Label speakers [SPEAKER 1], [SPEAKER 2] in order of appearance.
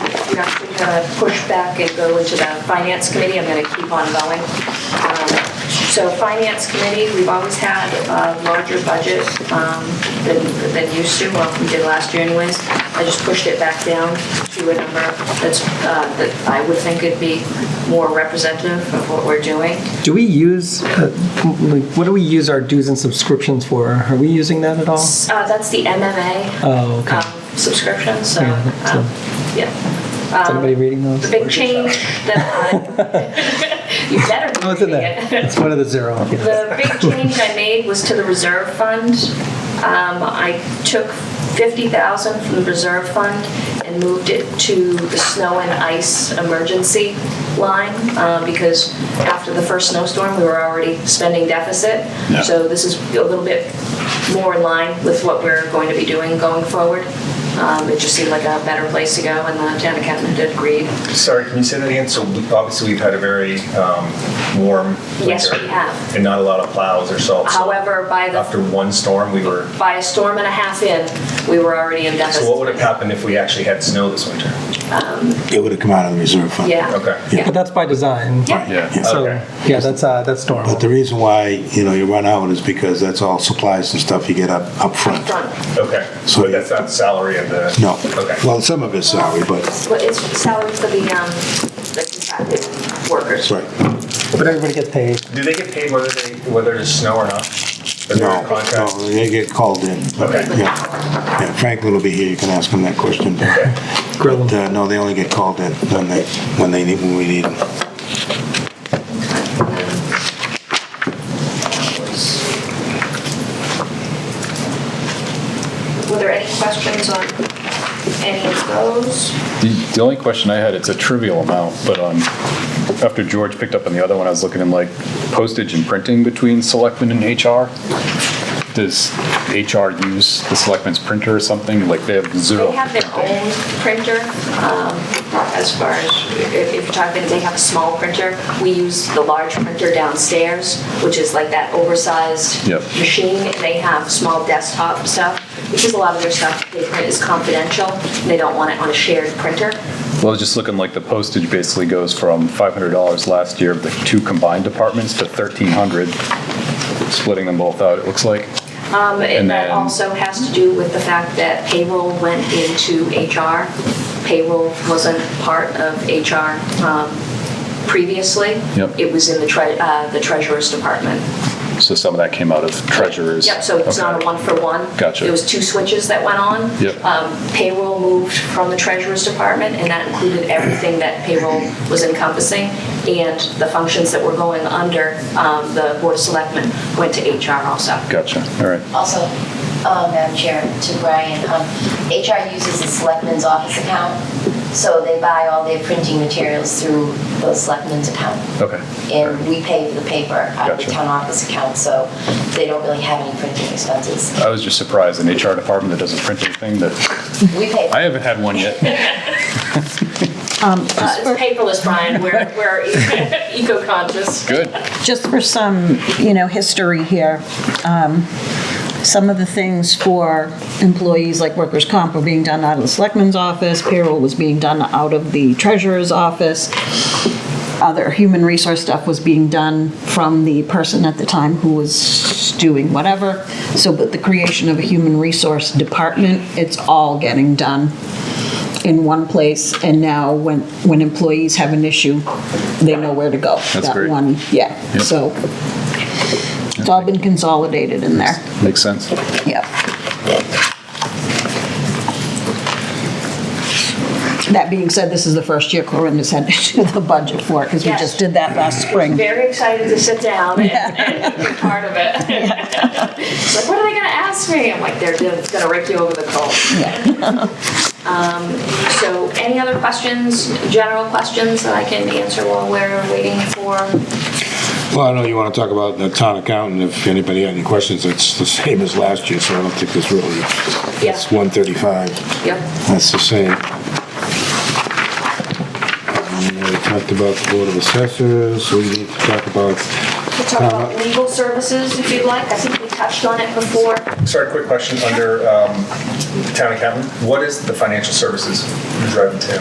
[SPEAKER 1] not going to push back and go into the finance committee, I'm going to keep on going. Um, So finance committee, we've always had a larger budget um, than than used to, well, we did last year anyways. I just pushed it back down to a number that's, uh, that I would think would be more representative of what we're doing.
[SPEAKER 2] Do we use, uh, like, what do we use our dues and subscriptions for? Are we using that at all?
[SPEAKER 1] Uh, That's the MMA
[SPEAKER 2] Oh, okay.
[SPEAKER 1] um, subscription, so,
[SPEAKER 2] Yeah, that's
[SPEAKER 1] um, yeah.
[SPEAKER 2] Is anybody reading those?
[SPEAKER 1] Um, The big change that I, you better
[SPEAKER 2] Oh, it's
[SPEAKER 1] be
[SPEAKER 2] in
[SPEAKER 1] reading it.
[SPEAKER 2] there. It's one of the zero. yeah.
[SPEAKER 1] The big change I made was to the reserve fund. Um, I took 50,000 from the reserve fund and moved it to the snow and ice emergency line uh, because after the first snowstorm, we were already spending deficit.
[SPEAKER 3] Yeah.
[SPEAKER 1] So this is a little bit more in line with what we're going to be doing going forward. Um, It just seemed like a better place to go, and the town accountant did agree.
[SPEAKER 4] Sorry, can you say that again? So we- obviously, we've had a very um, warm winter.
[SPEAKER 1] Yes, we have.
[SPEAKER 4] And not a lot of plows or salt. so
[SPEAKER 1] However, by the
[SPEAKER 4] After one storm, we were,
[SPEAKER 1] by a storm and a half in, we were already in deficit.
[SPEAKER 4] so what would have happened if we actually had snow this winter?
[SPEAKER 3] It would have come out of the reserve fund.
[SPEAKER 1] Yeah.
[SPEAKER 4] Okay.
[SPEAKER 2] But that's by design.
[SPEAKER 1] Yeah.
[SPEAKER 3] Yeah.
[SPEAKER 2] So,
[SPEAKER 4] Okay.
[SPEAKER 2] yeah, that's, uh, that's normal.
[SPEAKER 3] But the reason why, you know, you run out is because that's all supplies and stuff you get up, up front.
[SPEAKER 1] Front.
[SPEAKER 4] Okay.
[SPEAKER 3] So-
[SPEAKER 4] But that's not the salary of the.
[SPEAKER 3] No.
[SPEAKER 4] Okay.
[SPEAKER 3] Well, some of it's salary, but,
[SPEAKER 1] Well, it's salary for the, um, the contracted workers.
[SPEAKER 3] right.
[SPEAKER 2] But everybody gets paid.
[SPEAKER 4] Do they get paid whether they, whether there's snow or not? Is there a
[SPEAKER 3] No,
[SPEAKER 4] contract?
[SPEAKER 3] no, they get called in.
[SPEAKER 4] Okay.
[SPEAKER 3] Yeah. Yeah, Franklin will be here, you can ask him that question.
[SPEAKER 4] Okay.
[SPEAKER 2] Grill
[SPEAKER 3] But,
[SPEAKER 2] them.
[SPEAKER 3] uh, no, they only get called in when they, when they need, when we need them.
[SPEAKER 1] Were there any questions on any of those?
[SPEAKER 5] The the only question I had, it's a trivial amount, but on, after George picked up on the other one, I was looking in like postage and printing between selectmen and HR. Does HR use the selectmen's printer or something? Like they have zero.
[SPEAKER 1] They have their own printer, um, as far as, if if you're talking, they have a small printer. We use the large printer downstairs, which is like that oversized
[SPEAKER 5] Yep.
[SPEAKER 1] machine. They have small desktop stuff, because a lot of their stuff they print is confidential, and they don't want it on a shared printer.
[SPEAKER 5] Well, I was just looking like the postage basically goes from $500 last year of the two combined departments to 1,300, splitting them both out, it looks like.
[SPEAKER 1] Um, And
[SPEAKER 5] And
[SPEAKER 1] that
[SPEAKER 5] then-
[SPEAKER 1] also has to do with the fact that payroll went into HR. Payroll wasn't part of HR um, previously.
[SPEAKER 5] Yep.
[SPEAKER 1] It was in the tre- uh, the treasurer's department.
[SPEAKER 5] So some of that came out of treasurers.
[SPEAKER 1] Yep, so it's not a
[SPEAKER 5] Okay.
[SPEAKER 1] one-for-one.
[SPEAKER 5] Gotcha.
[SPEAKER 1] It was two switches that went on.
[SPEAKER 5] Yep.
[SPEAKER 1] Um, Payroll moved from the treasurer's department, and that included everything that payroll was encompassing, and the functions that were going under um, the Board of Selectmen went to HR also.
[SPEAKER 5] Gotcha, all right.
[SPEAKER 6] Also, uh, Madam Chair, to Brian, um, HR uses the Selectman's office account, so they buy all their printing materials through the Selectman's account.
[SPEAKER 5] Okay.
[SPEAKER 6] And we pay for the paper out of the
[SPEAKER 5] Gotcha.
[SPEAKER 6] town office account, so they don't really have any printing expenses.
[SPEAKER 5] I was just surprised, an HR department that doesn't print anything, that
[SPEAKER 6] We pay.
[SPEAKER 5] I haven't had one yet.
[SPEAKER 1] Uh, It's paperless, Brian, we're we're eco-conscious.
[SPEAKER 5] Good.
[SPEAKER 7] Just for some, you know, history here, um, some of the things for employees like workers' comp were being done out of the selectman's office, payroll was being done out of the treasurer's office, other human resource stuff was being done from the person at the time who was doing whatever. So, but the creation of a human resource department, it's all getting done in one place, and now when, when employees have an issue, they know where to go.
[SPEAKER 5] That's
[SPEAKER 7] That
[SPEAKER 5] great.
[SPEAKER 7] one, yeah,
[SPEAKER 5] Yep.
[SPEAKER 7] so it's all been consolidated in there,
[SPEAKER 5] Makes sense.
[SPEAKER 7] yep. That being said, this is the first year Corinda's had to do the budget for it, because we
[SPEAKER 1] Yes.
[SPEAKER 7] just did that last spring.
[SPEAKER 1] Very excited to sit down and- and be part of it. It's like, what are they going to ask me? I'm like, they're going to rake you over the coals. Um,
[SPEAKER 7] Yeah.
[SPEAKER 1] So any other questions, general questions that I can answer while we're waiting for?
[SPEAKER 3] Well, I know you want to talk about the town accountant, if anybody had any questions, it's the same as last year, so I don't think there's really,
[SPEAKER 1] Yeah.
[SPEAKER 3] it's 135,
[SPEAKER 1] Yep.
[SPEAKER 3] that's the same. Um, We talked about the Board of Assessors, we need to talk about,
[SPEAKER 1] We'll talk about legal services if you'd like. I think we touched on it before.
[SPEAKER 4] Sorry, quick question under um, town accountant. What is the financial services driving to?